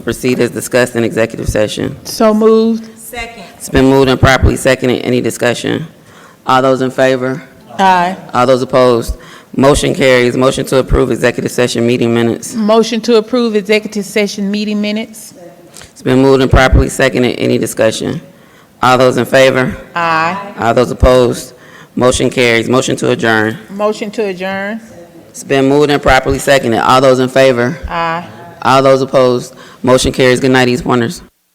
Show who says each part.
Speaker 1: proceed as discussed in executive session.
Speaker 2: So moved.
Speaker 3: Second.
Speaker 1: It's been moved and properly seconded. Any discussion? All those in favor?
Speaker 2: Aye.
Speaker 1: All those opposed? Motion carries. Motion to approve executive session meeting minutes.
Speaker 2: Motion to approve executive session meeting minutes.
Speaker 1: It's been moved and properly seconded. Any discussion? All those in favor?
Speaker 2: Aye.
Speaker 1: All those opposed? Motion carries. Motion to adjourn.
Speaker 2: Motion to adjourn.
Speaker 1: It's been moved and properly seconded. All those in favor?
Speaker 2: Aye.
Speaker 1: All those opposed? Motion carries. Good night, East Pointers.